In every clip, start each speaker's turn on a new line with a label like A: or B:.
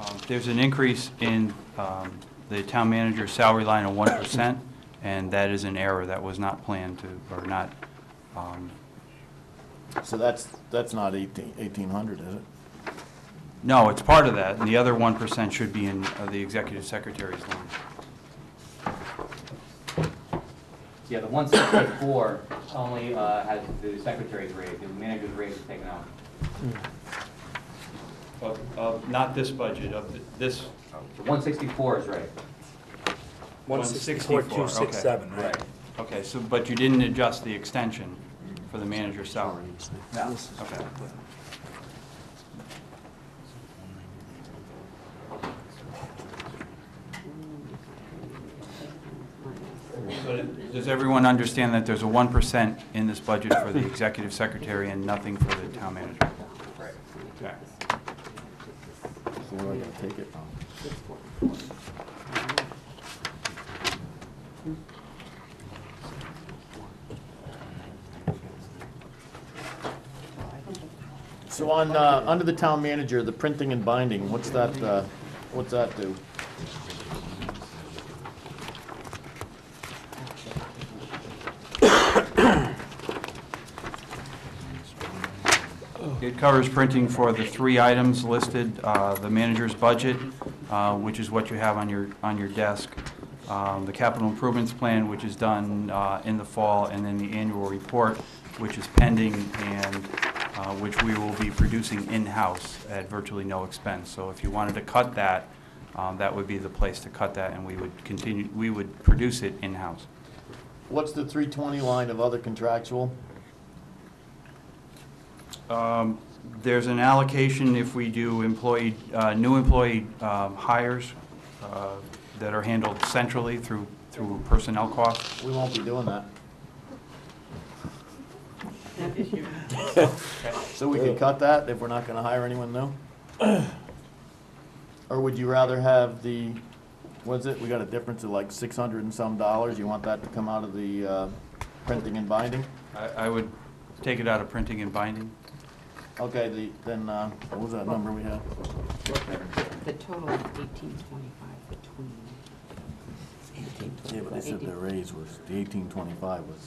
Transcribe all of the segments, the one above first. A: Um, There's an increase in um, the town manager's salary line of 1%, and that is an error that was not planned to, or not, um,
B: So that's, that's not eighteen, eighteen hundred, is it?
A: no, it's part of that, and the other 1% should be in uh, the executive secretary's line.
C: Yeah, the one sixty-four only uh, has the secretary's rate, the manager's rate is taken out.
A: Of- Of, not this budget, of th- this,
C: The one sixty-four is right.
A: 164,
D: 267, right?
A: okay, so, but you didn't adjust the extension for the manager's salary?
C: No.
A: Okay. So Does everyone understand that there's a 1% in this budget for the executive secretary and nothing for the town manager?
C: Right.
A: Okay.
B: So where am I gonna take it from? So on, uh, under the town manager, the printing and binding, what's that, uh, what's that do?
A: It covers printing for the three items listed, uh, the manager's budget, uh, which is what you have on your, on your desk, um, the capital improvements plan, which is done uh, in the fall, and then the annual report, which is pending and uh, which we will be producing in-house at virtually no expense. So if you wanted to cut that, um, that would be the place to cut that, and we would continue, we would produce it in-house.
B: What's the three twenty line of other contractual?
A: Um, There's an allocation if we do employee, uh, new employee um, hires uh, that are handled centrally through, through personnel costs.
B: We won't be doing that.
E: Not this year.
B: So we could cut that if we're not gonna hire anyone new? Or would you rather have the, what is it, we got a difference of like six hundred and some dollars, you want that to come out of the, uh, printing and binding?
A: I, I would take it out of printing and binding.
B: Okay, the, then, uh, what was that number we had?
E: The total is eighteen twenty-five between. Eighteen
B: Yeah, but they said the
E: Eighteen.
B: raise was, the eighteen twenty-five was.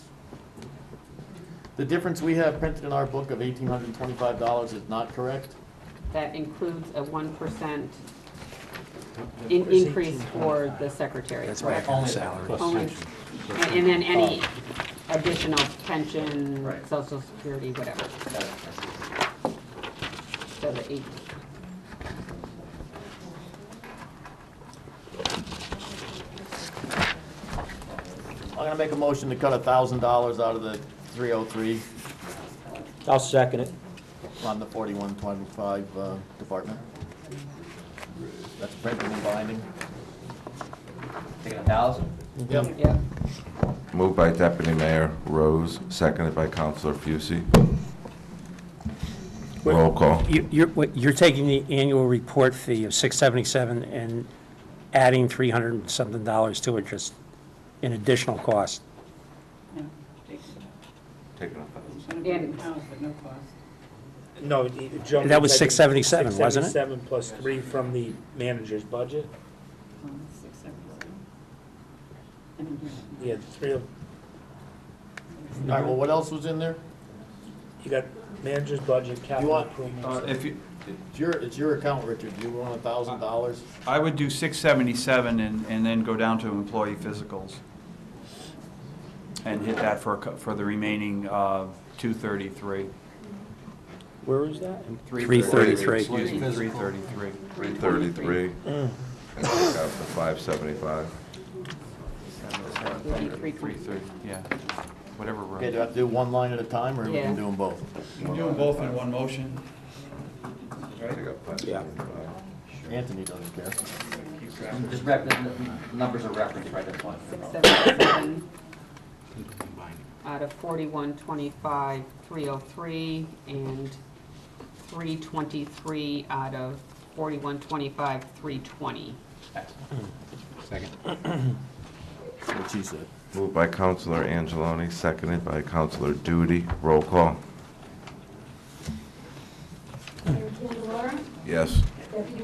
B: The difference we have printed in our book of eighteen hundred and twenty-five dollars is not correct?
E: That includes a one percent increase for the secretary. That's right.
C: salary.
E: Only, and and then any
B: Oh.
E: additional pension,
C: Right.
E: social security, whatever, so the eight.
B: I'm gonna make a motion to cut a thousand dollars out of the three oh three
D: I'll second it.
B: on the forty-one twenty-five, uh, department. That's printing and binding.
C: Taking a thousand?
B: Yep.
E: Yep.
F: Moved by Deputy Mayor Rose, seconded by Councilor Fucy. Roll call.
D: You- You're, what- you're taking the annual report fee of 677 and adding 300 and something dollars to it, just an additional cost.
E: And-
G: No, Joan.
D: That was 677, wasn't it?
G: 677 plus three from the manager's budget. You had three of,
B: All right, well, what else was in there?
G: you got manager's budget, capital
B: want-
A: Uh,
G: improvements.
A: If you,
B: It's your, it's your account, Richard, you want a thousand dollars?
A: I would do 677 and, and then go down to employee physicals and hit that for, a cou- for the remaining uh, 233.
D: Where is that?
A: 333.
D: 333.
A: Excuse me, 333.
F: 333. And take out the 575.
E: Three twenty-three.
A: Yeah, whatever. row.
B: Okay, do I have to do one line at a time, or we
E: Yeah.
B: can do them both?
A: You can do them both in one motion.
F: Take out 575.
B: Anthony doesn't care.
C: Just rep, the- the numbers are referenced right at one.
E: Six seventy-seven out of forty-one twenty-five, three oh three, and three twenty-three out of forty-one twenty-five, three twenty.
B: What she said.
F: Moved by Councilor Angeloni, seconded by Councilor Duty. Roll call.
H: Mayor Candelora,
F: Yes.
H: Deputy